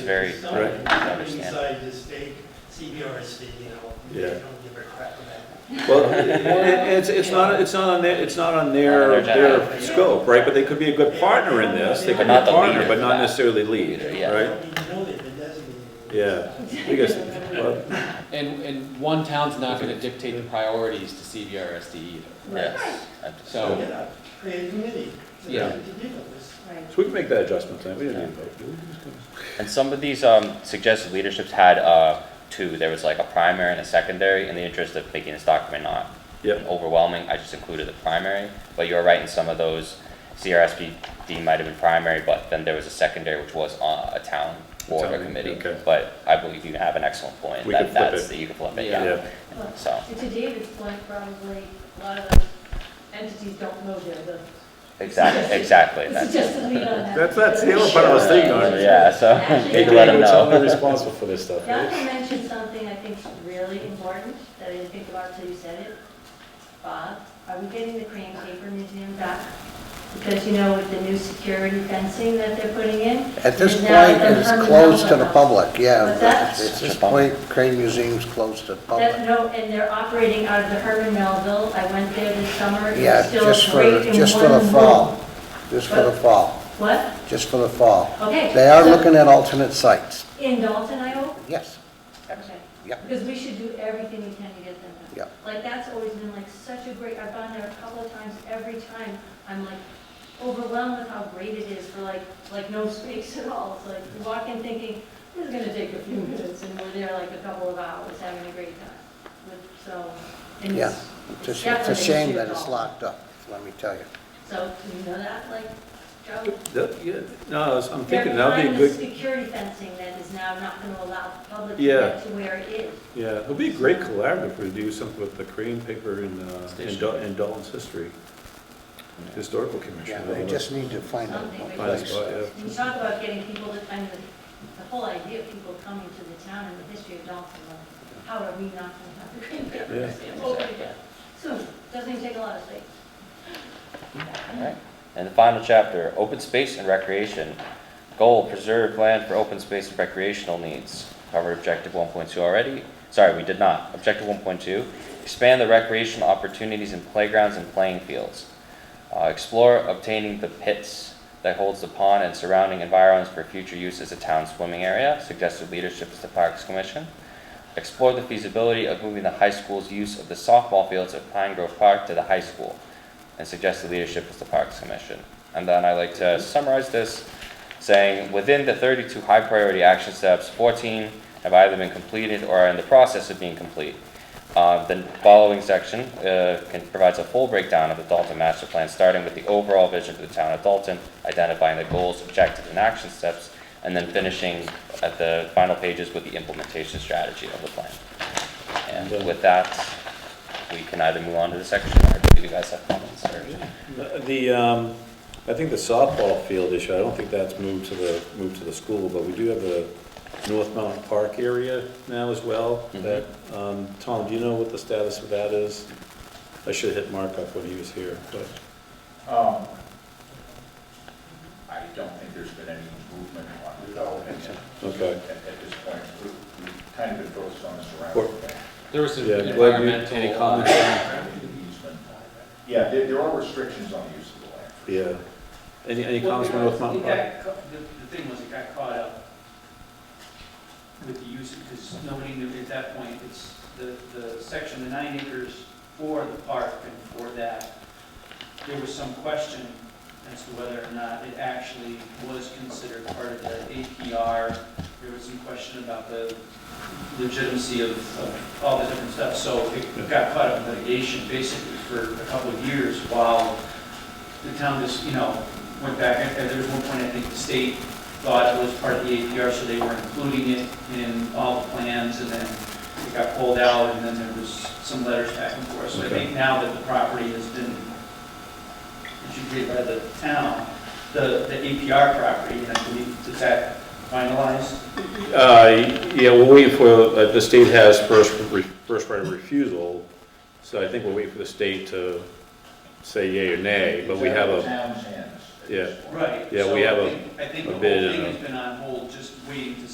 Very, Some of them I come understand. inside this state CBRC, you know, they Yeah. don't give a crap about. Well, it- it- it's, it's not, it's not on their, it's not on their, Not on their their scope, right? But they could be a good partner in this, they But could be not a the partner, leader but for not that. necessarily lead, Leader, yeah. right? I mean, you know they've been designated. Yeah, I guess, well, And, and one town's not gonna dictate the priorities to CBRSD either. Yes. I just- So- Get up, create a committee. It's Yeah. ridiculous. Right. so we can make that adjustment tonight, we didn't need a vote. do we? Just go- And some of these um, suggested leaderships had uh, two. There was like a primary and a secondary. In the interest of making this document not Yep. overwhelming, I just included the primary. But you're right, in some of those, CRSPD might have been primary, but then there was a secondary, which was uh, a town board or Town, committee. okay. But I believe you have an excellent point. We that- could flip that's- it. that You can flip it, Yeah. yeah. Well, So, and To David's point, probably a lot of those entities don't know they're the, exactly, exactly. it's that's- just a lead on that. That's- that's the other part I was thinking of. Yeah, so, you Hey, can let them David, tell know. them they're responsible for this stuff, right? Malcolm mentioned something I think is really important that I didn't think about until you said it. Bob, are we getting the Crane Paper Museum back? Because you know, with the new security fencing that they're putting in. At this and now point, they're it's permanent closed to the outlet. public, yeah. What's that? At Such this a bummer. point, Crane Museum's closed to the That, public. no, and they're operating out of the Herman Melville. I went there this summer. It was Yeah, still just for, great in just for the one room. fall, just for the fall, What? just for the fall. Okay. They are so- looking at alternate sites, In Dalton, I hope? yes, Okay. Yep. Because we should do everything we can to get them done. Yep. Like, that's always been like such a great, I've gone there a couple of times, every time, I'm like overwhelmed with how great it is for like, like no space at all. It's like, you walk in thinking, this is gonna take a few minutes, and we're there like a couple of hours having a great time. With- So, and yeah. it's, It's a sh- It's definitely a an shame issue that at it's all. locked up, let me tell you. so, do you know that, like, Joe? That- yeah, No, I was- I'm They're thinking that'd behind be a the good, security fencing that is now not gonna allow the public to Yeah. get to where it is. yeah, it'll be a great collaborative if we do something with the Korean paper and, uh, and Dal- and Dalton's history. Historical Yeah, commission. they just need to find a Something a we Find a can- place. spot, yeah. When you talk about getting people to, I mean, the whole idea of people coming to the town and the history of Dalton, like, how are we not going to have the Green Bay Yeah. Museum open again? Soon, doesn't even take a lot of space. Alright, and the final chapter, open space and recreation. Goal, preserve land for open space and recreational needs. Covered objective one point two already, sorry, we did not, objective one point two. Expand the recreational opportunities in playgrounds and playing fields. Uh, explore obtaining the pits that holds the pond and surrounding environs for future use as a town swimming area. Suggested leadership is the Parks Commission. Explore the feasibility of moving the high school's use of the softball fields at Pine Grove Park to the high school and suggested leadership is the Parks Commission. And then I like to summarize this, saying, within the 32 high-priority action steps, 14 have either been completed or are in the process of being complete. Uh, The following section uh, can- provides a full breakdown of the Dalton Master Plan, starting with the overall vision for the town of Dalton, identifying the goals, objectives, and action steps, and then finishing at the final pages with the implementation strategy of the plan. And with that, we can either move on to the section, or do you guys have comments? or- The, um, I think the softball field issue, I don't think that's moved to the, moved to the school, but we do have the North Mountain Park area now as well. That, um, Tom, do you know what the status of that is? I should have hit Mark up when he was here, but, Um, I don't think there's been any movement on development at, okay. at this point. We- We've kind of been focused on the Or- surrounding. thing. There was some Yeah, glad you- environmental. any uh, comments? Yeah, there, there are restrictions on the use of the land. Yeah. Any, any Well, comments it on got- North Mountain it Park? got ca- The the thing was, it got caught up with the use, because nobody knew at that point, it's the, the section, the nine acres for the park and for that. There was some question as to whether or not it actually was considered part of the APR. There was some question about the legitimacy of, of all the different stuff. So it got caught up in litigation basically for a couple of years while the town just, you know, went back, and and there was one point, I think the state thought it was part of the APR, so they were including it in all the plans, and then it got pulled out, and then there was some letters back and forth. So I think now that the property has been adjudicated by the town, the, the APR property, and I believe, is that finalized? Uh, yeah, we're waiting for, uh, the state has first, re- first right of refusal, so I think we're waiting for the state to say yea or nay, but we It's have out a. of the town's hands at this point. Right. Yeah, so we I have a- think- I think a the whole bid and thing a- has been on hold, just waiting to